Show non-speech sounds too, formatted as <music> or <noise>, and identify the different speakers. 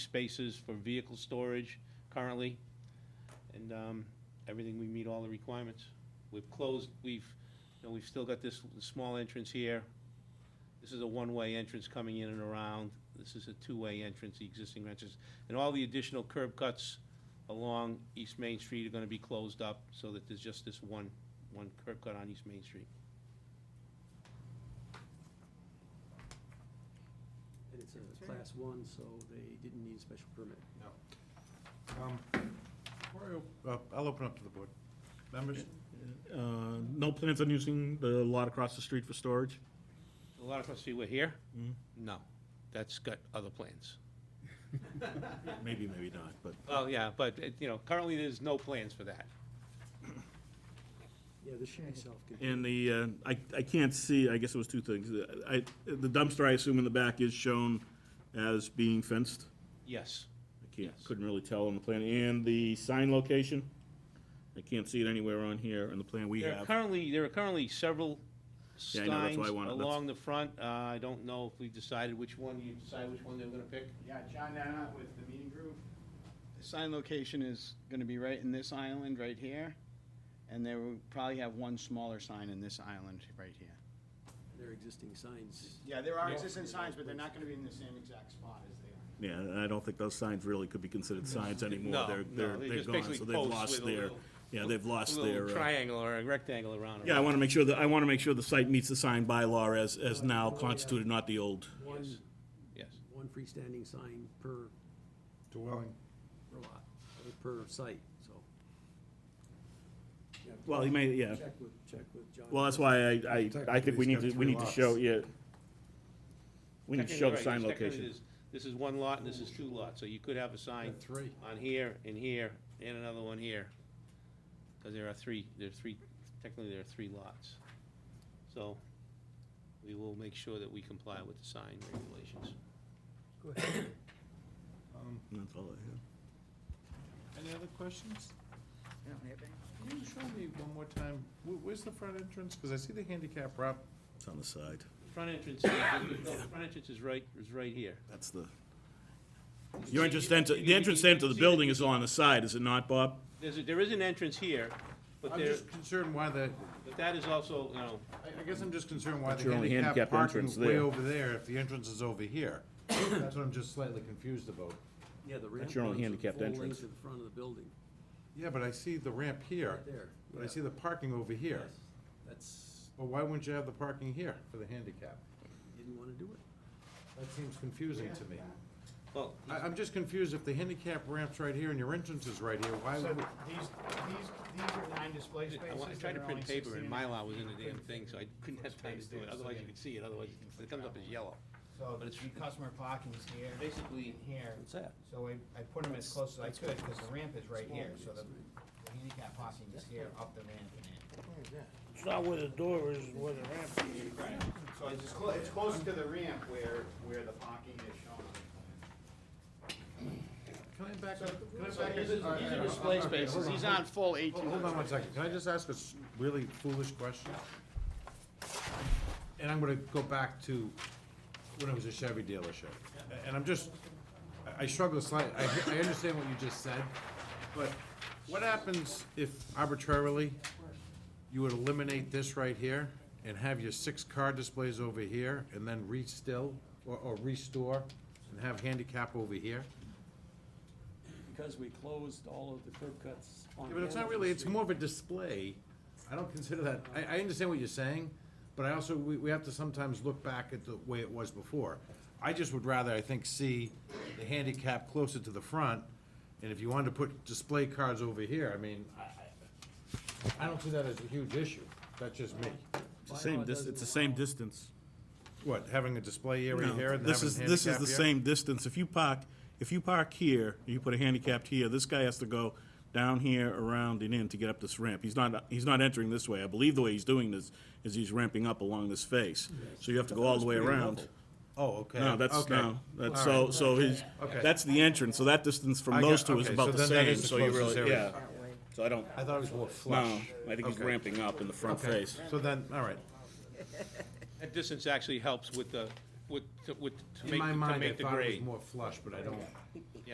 Speaker 1: spaces for vehicle storage currently, and um, everything, we meet all the requirements. We've closed, we've, you know, we've still got this small entrance here. This is a one-way entrance coming in and around. This is a two-way entrance, the existing entrance. And all the additional curb cuts along East Main Street are gonna be closed up, so that there's just this one, one curb cut on East Main Street.
Speaker 2: And it's a class one, so they didn't need a special permit.
Speaker 3: Um, before I op- uh, I'll open up to the board. Members?
Speaker 4: Uh, No plans on using the lot across the street for storage?
Speaker 1: A lot of us see we're here?
Speaker 4: Mhm.
Speaker 1: No, that's got other plans.
Speaker 4: Maybe, maybe not, but
Speaker 1: Well, yeah, but, it- you know, currently, there's no plans for that.
Speaker 2: Yeah, this should be self-contained.
Speaker 4: And the, uh, I, I can't see, I guess it was two things. I, the dumpster, I assume in the back is shown as being fenced?
Speaker 1: Yes.
Speaker 4: I can't,
Speaker 1: Yes.
Speaker 4: couldn't really tell on the plan. And the sign location? I can't see it anywhere on here on the plan we
Speaker 1: There are
Speaker 4: have.
Speaker 1: currently, there are currently several
Speaker 4: Yeah, I know, that's
Speaker 1: signs
Speaker 4: why I wanted- that's-
Speaker 1: along the front. Uh, I don't know if we decided which one, you decide which one they were gonna pick?
Speaker 5: Yeah, John Dana with the meeting group. The sign location is gonna be right in this island, right here, and they will probably have one smaller sign in this island, right here.
Speaker 2: Their existing signs.
Speaker 5: Yeah, there are existing signs, but they're not gonna be in the same exact spot as they are.
Speaker 4: Yeah, and I don't think those signs really could be considered signs anymore.
Speaker 1: No,
Speaker 4: They're,
Speaker 1: no,
Speaker 4: they're,
Speaker 1: they
Speaker 4: they're
Speaker 1: just
Speaker 4: gone,
Speaker 1: basically
Speaker 4: so they've
Speaker 1: posts
Speaker 4: lost
Speaker 1: with a
Speaker 4: their,
Speaker 1: little-
Speaker 4: yeah, they've
Speaker 1: A
Speaker 4: lost their.
Speaker 1: little
Speaker 4: uh,
Speaker 1: triangle or a rectangle around it.
Speaker 4: Yeah, I want to make sure that, I want to make sure the site meets the sign bylaw as, as now constituted, not the old.
Speaker 2: One,
Speaker 1: Yes.
Speaker 2: one freestanding sign per,
Speaker 3: Dwelling.
Speaker 2: per lot, or per site, so. Yeah,
Speaker 4: Well, he may, yeah.
Speaker 2: Check with, check with John.
Speaker 4: Well, that's why I, I, I think we need to, we need to show, yeah. We need to show
Speaker 1: Technically,
Speaker 4: the
Speaker 1: right, because
Speaker 4: sign
Speaker 1: technically
Speaker 4: location.
Speaker 1: there's- This is one lot and this is two lots, so you could have a sign
Speaker 2: Three.
Speaker 1: on here and here and another one here. Because there are three, there are three, technically there are three lots. So we will make sure that we comply with the sign regulations.
Speaker 4: That's all I have.
Speaker 3: Any other questions? Can you show me one more time, wh- where's the front entrance? Because I see the handicap wrap.
Speaker 4: It's on the side.
Speaker 1: Front entrance, <coughs> is- no, the front entrance is right, is right here.
Speaker 4: That's the, your entrance into, the entrance into the building is on the side, is it not, Bob?
Speaker 1: There's, a- there is an entrance here, but
Speaker 3: I'm
Speaker 1: there,
Speaker 3: just concerned why the,
Speaker 1: but that is also, you know,
Speaker 3: I I guess I'm just concerned why
Speaker 4: That's
Speaker 3: the
Speaker 4: your only
Speaker 3: handicap
Speaker 4: handicap
Speaker 3: parking
Speaker 4: entrance
Speaker 3: is way
Speaker 4: there.
Speaker 3: over there if the entrance is over here. That's what I'm just slightly confused about.
Speaker 2: Yeah, the ramp.
Speaker 4: That's your only
Speaker 2: runs the
Speaker 4: handicapped
Speaker 2: full length
Speaker 4: entrance.
Speaker 2: of the front of the building,
Speaker 3: Yeah, but I see the ramp here,
Speaker 2: right there.
Speaker 3: but I
Speaker 2: yeah.
Speaker 3: see the parking over here.
Speaker 2: Yes, That's,
Speaker 3: Well, why wouldn't you have the parking here for the handicap?
Speaker 2: didn't want to do it.
Speaker 3: That seems confusing to me.
Speaker 1: well,
Speaker 3: I, I'm just confused if the handicap ramp's right here and your entrance is right here, why
Speaker 5: So
Speaker 3: would?
Speaker 5: these, these, these are nine display spaces.
Speaker 1: I wa- I tried to
Speaker 5: that are
Speaker 1: print
Speaker 5: only
Speaker 1: paper and
Speaker 5: 16.
Speaker 1: Mylar was in the damn thing, so I couldn't have time to do it, otherwise you could see it, otherwise it comes up as yellow.
Speaker 5: So
Speaker 1: but
Speaker 5: the
Speaker 1: it's-
Speaker 5: customer parking is here,
Speaker 1: Basically,
Speaker 5: here,
Speaker 2: What's that?
Speaker 5: so I, I put them as close as I could, because the ramp is right here, so the the handicap parking is here, up the ramp and in.
Speaker 6: It's not where the door is, where the ramp is.
Speaker 5: So it's just close, it's close to the ramp where, where the parking is shown on the
Speaker 3: Can I back up? Can I
Speaker 5: plan.
Speaker 3: back up?
Speaker 5: these are display spaces, he's on full eighteen.
Speaker 3: Hold on one second. Can I just ask a s- really foolish question? And I'm gonna go back to when I was a Chevy dealership. A- And I'm just, I- I struggle slightly, I, I understand what you just said, but what happens if arbitrarily you would eliminate this right here and have your six car displays over here and then re-still or, or restore and have handicap over here?
Speaker 2: Because we closed all of the curb cuts on.
Speaker 3: Yeah, but it's not
Speaker 2: Hamilton
Speaker 3: really, it's
Speaker 2: Street.
Speaker 3: more of a display. I don't consider that, I, I understand what you're saying, but I also, we, we have to sometimes look back at the way it was before. I just would rather, I think, see the handicap closer to the front, and if you wanted to put display cards over here, I mean, I- I, I don't see that as a huge issue. That's just me.
Speaker 4: It's the same, dis- it's the same distance.
Speaker 3: What, having a display area
Speaker 4: No,
Speaker 3: here and having
Speaker 4: This is,
Speaker 3: handicap
Speaker 4: this is the
Speaker 3: here?
Speaker 4: same distance. If you park, if you park here, you put a handicapped here, this guy has to go down here, around and in to get up this ramp. He's not, he's not entering this way. I believe the way he's doing this is he's ramping up along this face. So you have to go all the way around.
Speaker 3: Oh, okay.
Speaker 4: No, that's,
Speaker 3: Okay.
Speaker 4: no, that's,
Speaker 3: All
Speaker 4: so,
Speaker 3: right.
Speaker 4: so his,
Speaker 3: Okay.
Speaker 4: that's the entrance, so that distance
Speaker 3: I
Speaker 4: from
Speaker 3: got-
Speaker 4: those two is
Speaker 3: okay,
Speaker 4: about
Speaker 3: so
Speaker 4: the
Speaker 3: then that
Speaker 4: same,
Speaker 3: is the
Speaker 4: so you
Speaker 3: closest
Speaker 4: really, yeah.
Speaker 3: area.
Speaker 4: So I don't,
Speaker 3: I thought it was more
Speaker 4: no,
Speaker 3: flush.
Speaker 4: I think he's
Speaker 3: Okay.
Speaker 4: ramping up in the front
Speaker 3: Okay.
Speaker 4: face.
Speaker 3: So then, all right.
Speaker 1: that distance actually helps with the, with, to- with, to
Speaker 3: In
Speaker 1: make,
Speaker 3: my
Speaker 1: to
Speaker 3: mind, I
Speaker 1: make the
Speaker 3: thought it was
Speaker 1: grade.
Speaker 3: more flush, but I don't.